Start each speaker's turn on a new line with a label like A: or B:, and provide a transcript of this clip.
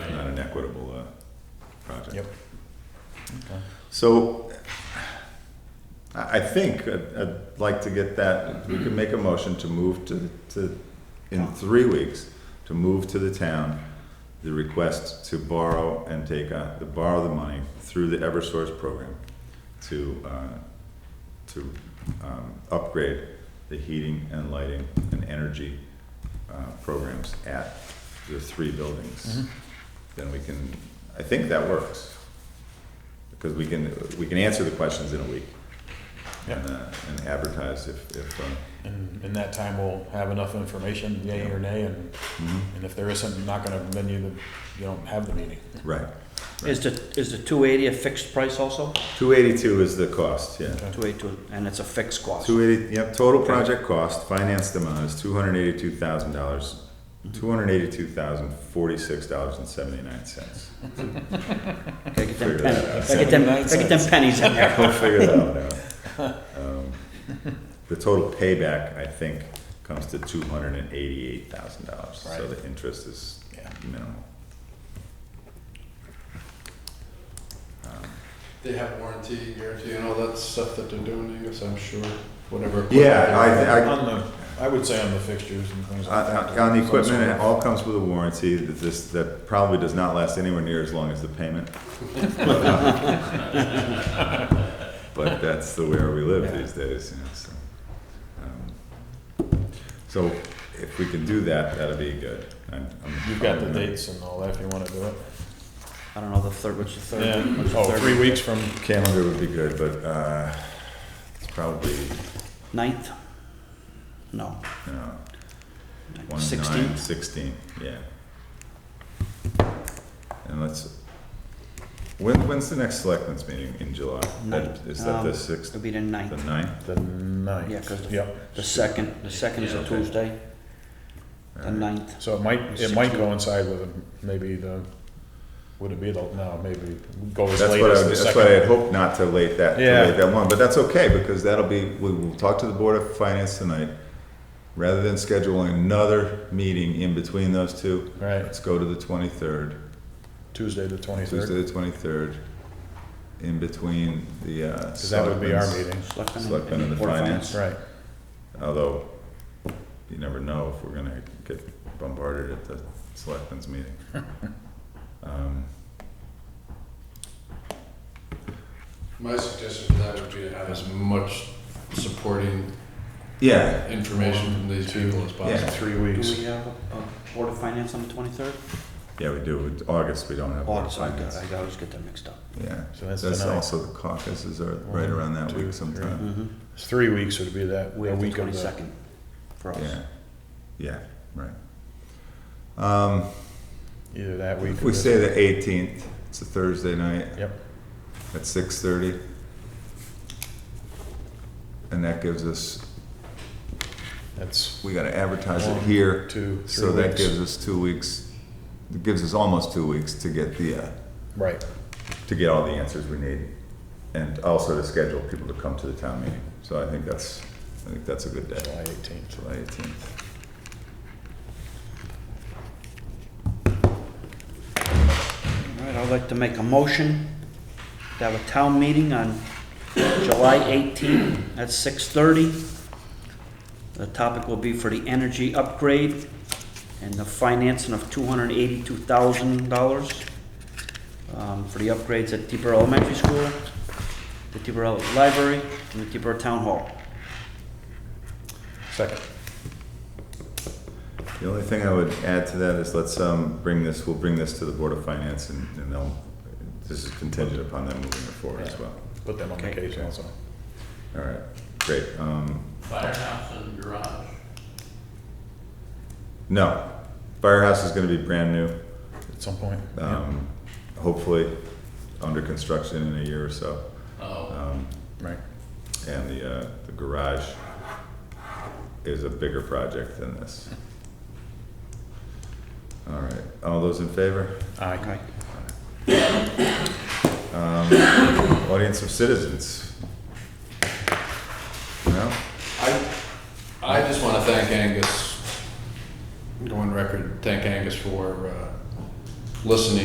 A: equitable uh, project.
B: Yep. Okay.
A: So I I think I'd I'd like to get that, we could make a motion to move to, to, in three weeks, to move to the town the request to borrow and take, uh, to borrow the money through the Eversource program to, uh, to um, upgrade the heating and lighting and energy uh, programs at the three buildings. Then we can, I think that works. Because we can, we can answer the questions in a week.
B: Yep.
A: And, uh, and advertise if, if, uh,
B: And in that time, we'll have enough information, yay or nay, and, and if there isn't, I'm not gonna, then you, you don't have the meeting.
A: right.
C: Is the, is the two eighty a fixed price also?
A: Two eighty-two is the cost, yeah.
C: Two eighty-two, and it's a fixed cost?
A: Two eighty, yep, total project cost, financed amount is two hundred eighty-two thousand dollars, two hundred eighty-two thousand forty-six dollars and seventy-nine cents.
C: Gotta get
A: Figure
C: them
A: that out.
C: pennies, gotta get them, gotta get them pennies in there.
A: We'll figure that out now. Um, The total payback, I think, comes to two hundred and eighty-eight thousand dollars, so
B: Right.
A: the interest is
B: Yeah.
A: minimal.
D: They have warranty, guarantee, and all that stuff that they're doing to you, so I'm sure whatever.
A: Yeah, I, I,
B: On the, I would say on the fixtures and things like
A: Uh, On
B: that.
A: on the equipment, uh, it all comes with a warranty that this, that probably does not last anywhere near as long as the payment. But that's the way we live these days, you know, so. um, So if we can do that, that'd be good. I'm- I'm-
B: You've got the dates and all that, if you wanna do it.
C: I don't know, the third, what's the third?
B: Yeah,
C: week? What's the
B: oh,
C: third
B: three
C: week?
B: weeks from,
A: Calendar would be good, but, uh, it's probably,
C: Ninth? No,
A: you know, one, nine,
C: sixteenth?
A: sixteen, yeah. And let's, when, when's the next selectmen's meeting in July? That-
C: Ninth.
A: Is that the
C: Um,
A: sixth,
C: It'll be the
A: the
C: ninth,
A: ninth?
B: the ninth.
C: Yeah, 'cause the-
B: Yep,
C: the second, the second is
A: Yeah,
C: a
A: okay.
C: Tuesday, the
A: Alright.
C: ninth.
B: so it might, it might coincide with maybe the, would it be the, no, maybe go as
A: That's
B: late
A: what I,
B: as the
A: would- that's what I had
B: second.
A: hoped not to late that, to
B: Yeah.
A: late that long, but that's okay, because that'll be, we will talk to the Board of Finance tonight. Rather than scheduling another meeting in between those two,
B: Right,
A: let's go to the twenty-third.
B: Tuesday the twenty-third,
A: Tuesday the twenty-third, in between the, uh.
B: cause that would be our
A: selectmen's-
B: meeting,
C: Selectmen and-
A: Selectmen and the
C: Board of
A: finance.
B: right.
A: Although, you never know if we're gonna get bombarded at the selectmen's meeting. Um,
D: My suggestion for that would be to have as much supporting
A: Yeah,
D: information from these people as
A: Yeah.
D: possible.
B: Three
C: Do
B: weeks.
C: we have a a Board of Finance on the twenty-third?
A: yeah, we do, It's August, we don't have. board
C: August, I
A: finance.
C: I always get them mixed up.
A: Yeah,
B: So that's
A: that's
B: tonight.
A: also the caucuses are right
B: One,
A: around that
B: two,
A: week
B: three.
A: sometime.
C: Mm-hmm.
B: It's three weeks, it would be that,
C: We
B: the
C: have the
B: week of the,
C: twenty-second for us.
A: Yeah, yeah, right. Um,
B: either that week.
A: if
B: or
A: we
B: the-
A: say the eighteenth, it's a Thursday night.
B: Yep.
A: at six thirty. And that gives us,
B: That's
A: we gotta advertise it
B: One,
A: here,
B: two, three
A: so that
B: weeks.
A: gives us two weeks, it gives us almost two weeks to get the, uh,
B: right.
A: to get all the answers we need. And also to schedule people to come to the town meeting, so I think that's, I think that's a good day,
B: July 18th.
A: July eighteenth.
C: All right, I'd like to make a motion to have a town meeting on July 18th at 6:30. The topic will be for the energy upgrade and the financing of $282,000 um, for the upgrades at Deeper Elementary School, the Deeper Library, and the Deeper Town Hall.
B: Second.
A: The only thing I would add to that is let's, um, bring this, we'll bring this to the Board of Finance and, and they'll, this is contingent upon them moving it forward as well.
B: Put them on the
C: Okay.
B: case also.
A: All right, great, um,
E: Firehouse and garage.
A: No, firehouse is going to be brand new.
B: At some point. Yeah.
A: Um, Hopefully, under construction in a year or so.
E: Oh,
A: Um,
B: Right.
A: and the uh, the garage is a bigger project than this. All right, all those in favor?
B: Aye.
C: Okay.
A: Audience of citizens. No.
D: I, I just want to thank Angus, go on record, thank Angus for uh, listening